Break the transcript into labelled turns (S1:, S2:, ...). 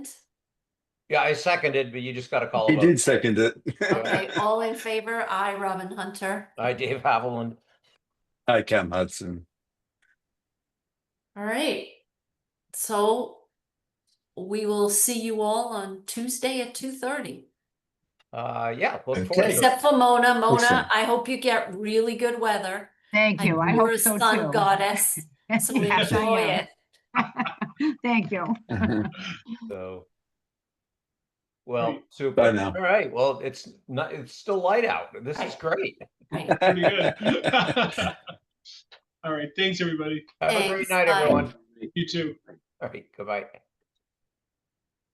S1: Yeah, I seconded, but you just gotta call
S2: He
S1: a vote.
S2: did second it.
S3: Okay, all in favor? I, Robin Hunter.
S1: Hi, Dave Haviland.
S2: Hi, Cam Hudson.
S3: All right. So we will see you all on Tuesday at two thirty.
S1: Uh, yeah, look
S2: Okay.
S1: forward to it.
S3: Except for Mona.
S2: Awesome.
S3: Mona, I hope you get really good weather.
S4: Thank you. I
S3: You're
S4: hope
S3: a
S4: so
S3: sun
S4: too.
S3: goddess, so
S4: Yes, I
S3: enjoy
S4: am.
S3: it.
S4: Thank you.
S1: So. Well,
S5: Great.
S1: super.
S2: Bye now.
S1: All right, well, it's not, it's still light out. This is
S3: Right.
S1: great.
S3: Right.
S5: Pretty good. All right, thanks, everybody.
S1: Have a great
S3: Thanks,
S1: night,
S3: bye.
S1: everyone.
S5: You too.
S1: All right, goodbye.